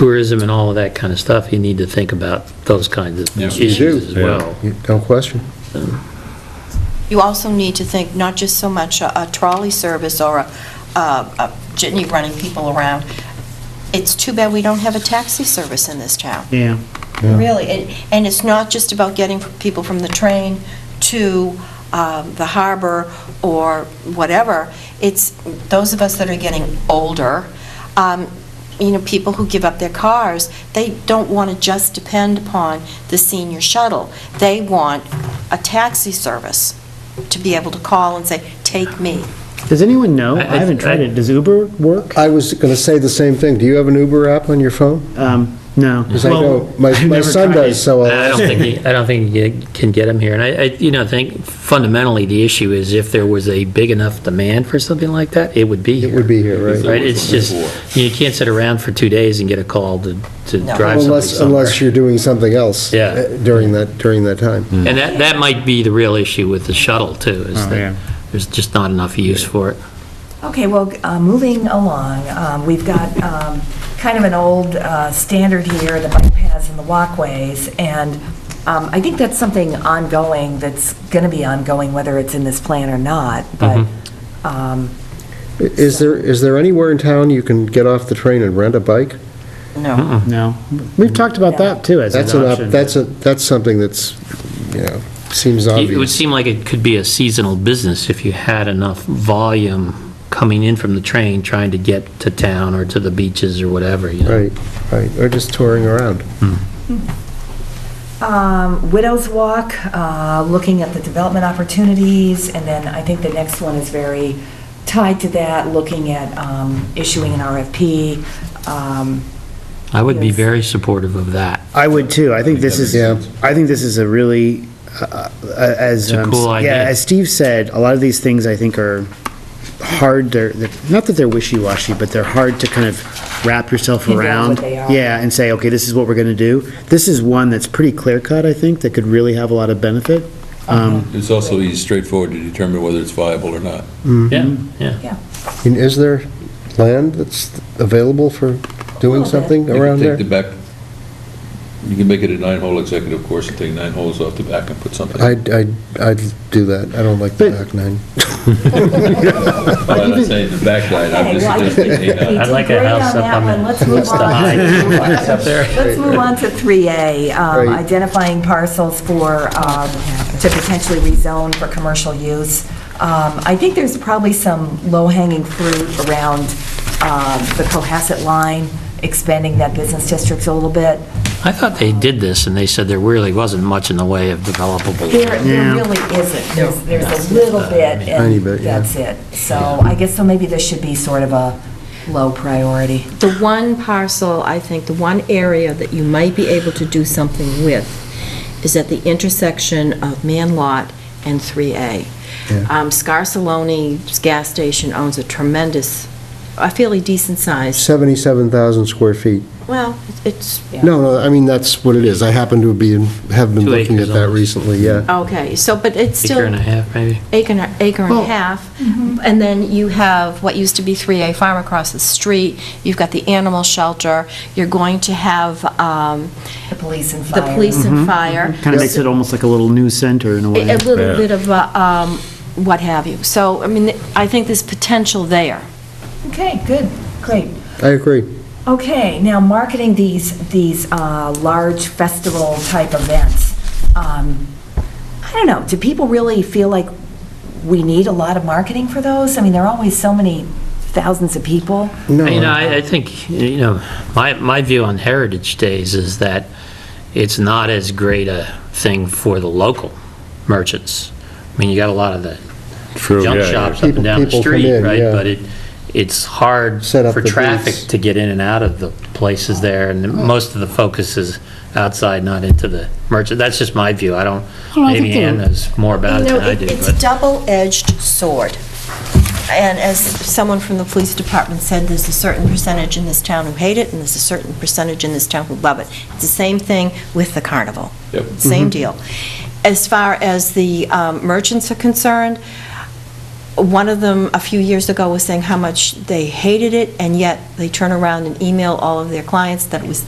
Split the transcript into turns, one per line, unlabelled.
tourism and all of that kind of stuff, you need to think about those kinds of
Yes,
you do.
issues as well.
No question.
You also need to think not just so much a a trolley service or a- a a jitney running people around. It's too bad we don't have a taxi service in this town.
Yeah.
Yeah.
Really, and, and it's not just about getting people from the train to um, the harbor or whatever, it's those of us that are getting older, um, you know, people who give up their cars, they don't want to just depend upon the senior shuttle. They want a taxi service to be able to call and say, "Take me."
Does anyone know?
I-
I
I-
haven't tried it. Does Uber work?
I was going to say the same thing. Do you have an Uber app on your phone?
Um, No.
Because I
Well,
know, my
I've
my
never
son
tried
does,
it.
so. uh,
I don't think, you- I don't think you can get them here, and I, I, you know, I think fundamentally, the issue is if there was a big enough demand for something like that, it would be here.
It would be here, right?
Right, it's just, you can't sit around for two days and get a call to, to
No.
drive somebody
Unless,
somewhere.
unless you're doing something else.
Yeah.
uh, During that, during that time.
And that, that might be the real issue with the shuttle, too, is
Oh, yeah.
that there's just not enough use for it.
Okay, well, uh, moving along, um, we've got um, kind of an old uh, standard here, the bike paths and the walkways, and um, I think that's something ongoing, that's going to be ongoing, whether it's in this plan or not, but, um,
I- Is there, is there anywhere in town you can get off the train and rent a bike?
No.
No. We've talked about that, too, as an
That's an, op-
option.
that's a, that's something that's, you know, seems
It would
obvious.
seem like it could be a seasonal business if you had enough volume coming in from the train, trying to get to town or to the beaches or whatever, you know?
Right, right. Or just touring around.
Um, Widows Walk, uh, looking at the development opportunities, and then I think the next one is very tied to that, looking at um, issuing an RFP. um,
I would be
Yes.
very supportive of that.
I would, too. I think this is,
Yeah.
I think this is a really, uh, uh, as.
It's a
um,
cool idea.
Yeah, as Steve said, a lot of these things, I think, are hard, they're, they're- not that they're wishy-washy, but they're hard to kind of wrap yourself
Figure out
around.
what they are.
Yeah, and say, okay, this is what we're going to do. This is one that's pretty clear-cut, I think, that could really have a lot of benefit. Um,
It's also easy, straightforward to determine whether it's viable or not.
Yeah, Mm-hmm. yeah.
And is there land that's available for doing
Little bit.
something around
You
there?
can take the back, you can make it a nine-hole executive course and take nine holes off the back and put something.
I'd, I'd, I'd do that. I don't like the
But-
back nine.
I'm not saying the back line, I'm
Okay,
just
well, I think
suggesting
we
eight
did
I'd like a
great
house
on
up
that
on
one.
the-
Let's move
what's the
on.
height? Up there?
Let's move on to 3A, um,
Right.
identifying parcels for, um, to potentially rezone for commercial use. Um, I think there's probably some low-hanging fruit around um, the Cohasset line, expanding that business district a little bit.
I thought they did this, and they said there really wasn't much in the way of developable.
There there
Yeah.
really isn't. There's there's a little bit,
Tiny
and
bit, yeah.
that's it. So I guess, so maybe this should be sort of a low priority.
the one parcel, I think, the one area that you might be able to do something with is at the intersection of Man Lot and 3A. Um, Scarsaloni's gas station owns a tremendous, a fairly decent size,
77,000 square feet.
well, it's,
No, no, I mean, that's what it is. I happen to be, have been
Two
looking at
acres
that
almost.
recently, yeah.
okay, so, but it's still...
Acre and a half, maybe?
acre, and- acre and
Well-
a half, and then you have what used to be 3A Farm across the street, you've got the animal shelter, you're going to have um,
The police and
the
fire.
police
Mm-hmm.
and fire.
Kind of makes it almost like a little news center in a way.
A a little bit of, uh, um, what have you. So, I mean, I think there's potential there.
Okay, good, great.
I agree.
Okay, now marketing these, these uh, large festival-type events, um, I don't know, do people really feel like we need a lot of marketing for those? I mean, there are always so many thousands of people.
You know,
No,
I, I think, you know, my, my view on Heritage Days is that it's not as great a thing for the local merchants. I mean, you got a lot of the junk shops up
People-
and down the
people come
street,
in,
right?
yeah.
But it, it's hard
Set up
for
the
traffic
booths.
to get in and out of the places there, and most of the focus is outside, not into the merchant. That's just my view. I don't, maybe Ann knows more about it
You know,
than I
it-
do,
it's
but.
double-edged sword. And as someone from the police department said, there's a certain percentage in this town who hate it, and there's a certain percentage in this town who love it. It's the same thing with the carnival.
Yep.
Hmm.
Mm-hmm.
Same deal. As far as the um, merchants are concerned, one of them a few years ago was saying how much they hated it, and yet they turn around and email all of their clients that it was